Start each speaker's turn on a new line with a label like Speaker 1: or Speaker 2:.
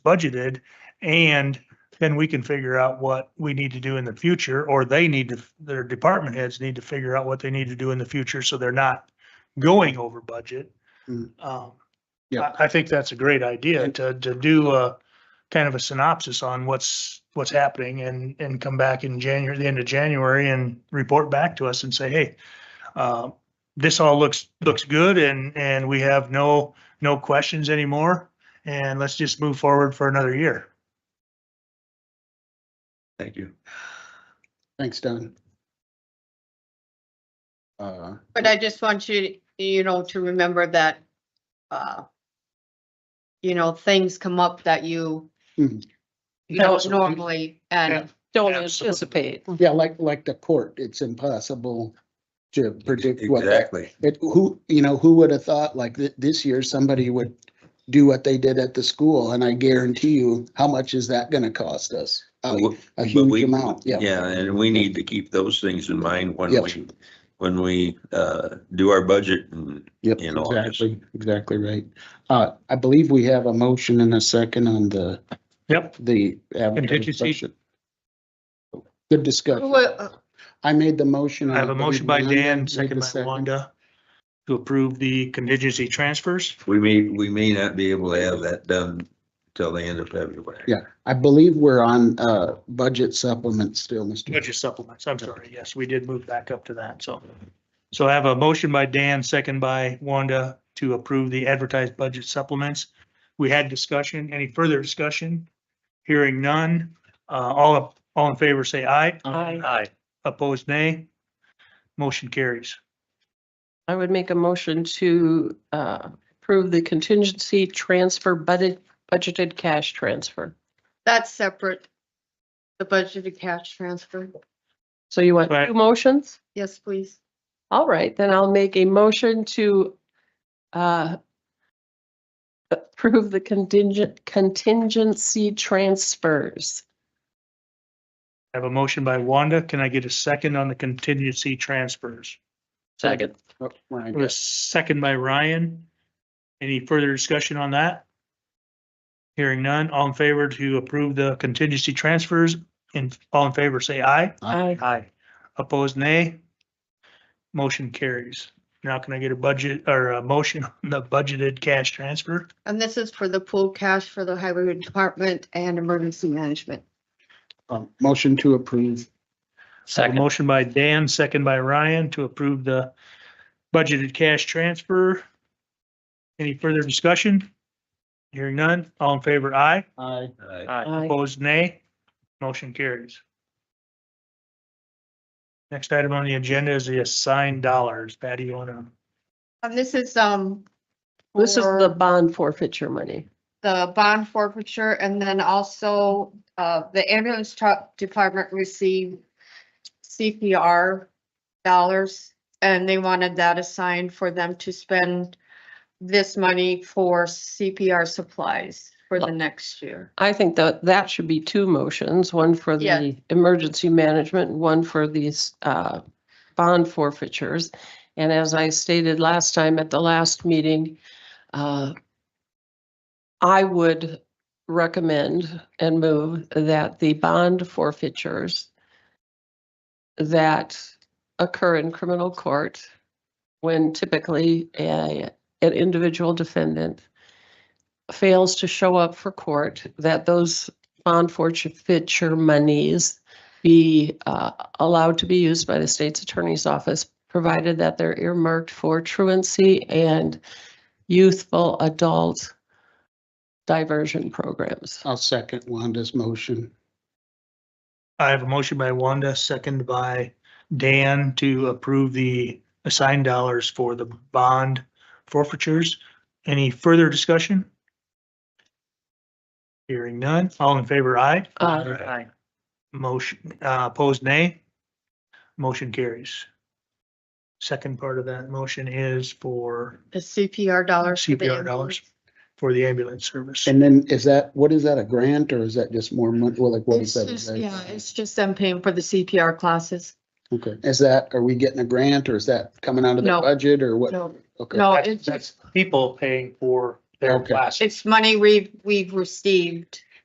Speaker 1: budgeted. And then we can figure out what we need to do in the future, or they need to, their department heads need to figure out what they need to do in the future, so they're not going over budget.
Speaker 2: Mm.
Speaker 1: Um,
Speaker 2: Yeah.
Speaker 1: I, I think that's a great idea to, to do a kind of a synopsis on what's, what's happening and, and come back in January, the end of January and report back to us and say, hey, uh, this all looks, looks good and, and we have no, no questions anymore. And let's just move forward for another year.
Speaker 3: Thank you.
Speaker 2: Thanks, Don. Uh,
Speaker 4: But I just want you, you know, to remember that, uh, you know, things come up that you
Speaker 2: Mhm.
Speaker 4: don't
Speaker 1: Absolutely.
Speaker 4: normally, and
Speaker 5: Don't
Speaker 1: Absolutely.
Speaker 5: anticipate.
Speaker 2: yeah, like, like the court, it's impossible to predict what, that-
Speaker 3: Exactly.
Speaker 2: it, who, you know, who would have thought like that this year somebody would do what they did at the school and I guarantee you, how much is that gonna cost us? A
Speaker 3: But we-
Speaker 2: a
Speaker 3: but
Speaker 2: huge
Speaker 3: we-
Speaker 2: amount, Um, yeah.
Speaker 3: Yeah, and we need to keep those things in mind when
Speaker 2: Yep.
Speaker 3: we, when we uh, do our budget and
Speaker 2: Yep,
Speaker 3: in August.
Speaker 2: exactly, exactly right. Uh, I believe we have a motion and a second on the,
Speaker 1: Yep.
Speaker 2: the.
Speaker 1: Contingency.
Speaker 2: advertising. Good
Speaker 4: who uh,
Speaker 2: discussion.
Speaker 4: will-
Speaker 2: I made the motion.
Speaker 1: I have a motion by Dan, second
Speaker 2: Second.
Speaker 1: by Wanda, to approve the contingency transfers.
Speaker 3: We may, we may not be able to have that done till the end of February.
Speaker 2: Yeah. I believe we're on, uh, budget supplement still, Mr.
Speaker 1: Budget supplements, I'm sorry, yes, we did move back up to that, so. So I have a motion by Dan, second by Wanda, to approve the advertised budget supplements. We had discussion, any further discussion? Hearing none, uh, all, all in favor, say aye.
Speaker 5: I,
Speaker 1: Aye. Opposed, nay. Motion carries.
Speaker 5: I would make a motion to uh, approve the contingency transfer budget, budgeted cash transfer.
Speaker 4: that's separate. The budget to cash transfer.
Speaker 5: So you want
Speaker 1: Right.
Speaker 5: two motions?
Speaker 4: Yes, please.
Speaker 5: All right, then I'll make a motion to uh, approve the contingent, contingency transfers.
Speaker 1: I have a motion by Wanda, can I get a second on the contingency transfers?
Speaker 5: Second.
Speaker 2: Oh, right.
Speaker 1: With a second by Ryan. Any further discussion on that? Hearing none, all in favor to approve the contingency transfers, and all in favor, say aye.
Speaker 5: I,
Speaker 1: Aye. Opposed, nay. Motion carries. Now can I get a budget or a motion on the budgeted cash transfer?
Speaker 4: And this is for the pool cash for the highway department and emergency management.
Speaker 2: Um, motion to approve.
Speaker 1: A motion by Dan, second by Ryan to approve the budgeted cash transfer. Any further discussion? Hearing none, all in favor, aye.
Speaker 2: Aye.
Speaker 3: Uh,
Speaker 5: Aye.
Speaker 1: Opposed, nay. Motion carries. Next item on the agenda is the assigned dollars. Patty, you wanna,
Speaker 4: And this is, um,
Speaker 5: This is
Speaker 4: for-
Speaker 5: the bond forfeiture money.
Speaker 4: the bond forfeiture and then also uh the ambulance truck department received CPR dollars and they wanted that assigned for them to spend this money for CPR supplies for the next year.
Speaker 5: I think that that should be two motions, one for
Speaker 4: Yeah.
Speaker 5: the emergency management, one for these uh, bond forfeitures. And as I stated last time at the last meeting, uh, I would recommend and move that the bond forfeitures that occur in criminal court when typically a, an individual defendant fails to show up for court, that those bond forfeiture monies be uh, allowed to be used by the state's attorney's office, provided that they're earmarked for truancy and youthful adult diversion programs.
Speaker 2: I'll second Wanda's motion.
Speaker 1: I have a motion by Wanda, second by Dan to approve the assigned dollars for the bond forfeitures. Any further discussion? Hearing none, all in favor, aye.
Speaker 5: Uh,
Speaker 1: Aye. Motion, uh, opposed nay. Motion carries. Second part of that motion is for,
Speaker 4: The CPR dollars. for the
Speaker 1: CPR dollars.
Speaker 4: ambulance.
Speaker 1: for the ambulance service.
Speaker 2: And then is that, what is that, a grant or is that just more money? Well, like what is
Speaker 4: It's
Speaker 2: that?
Speaker 4: just, yeah, it's just them paying for the CPR classes.
Speaker 2: Okay, is that, are we getting a grant or is that coming out of the
Speaker 4: No.
Speaker 2: budget or what?
Speaker 4: No,
Speaker 2: Okay.
Speaker 4: no,
Speaker 1: That's-
Speaker 4: Oh, it's just
Speaker 1: That's people paying for their
Speaker 2: Okay.
Speaker 1: classes.
Speaker 4: It's money we've, we've received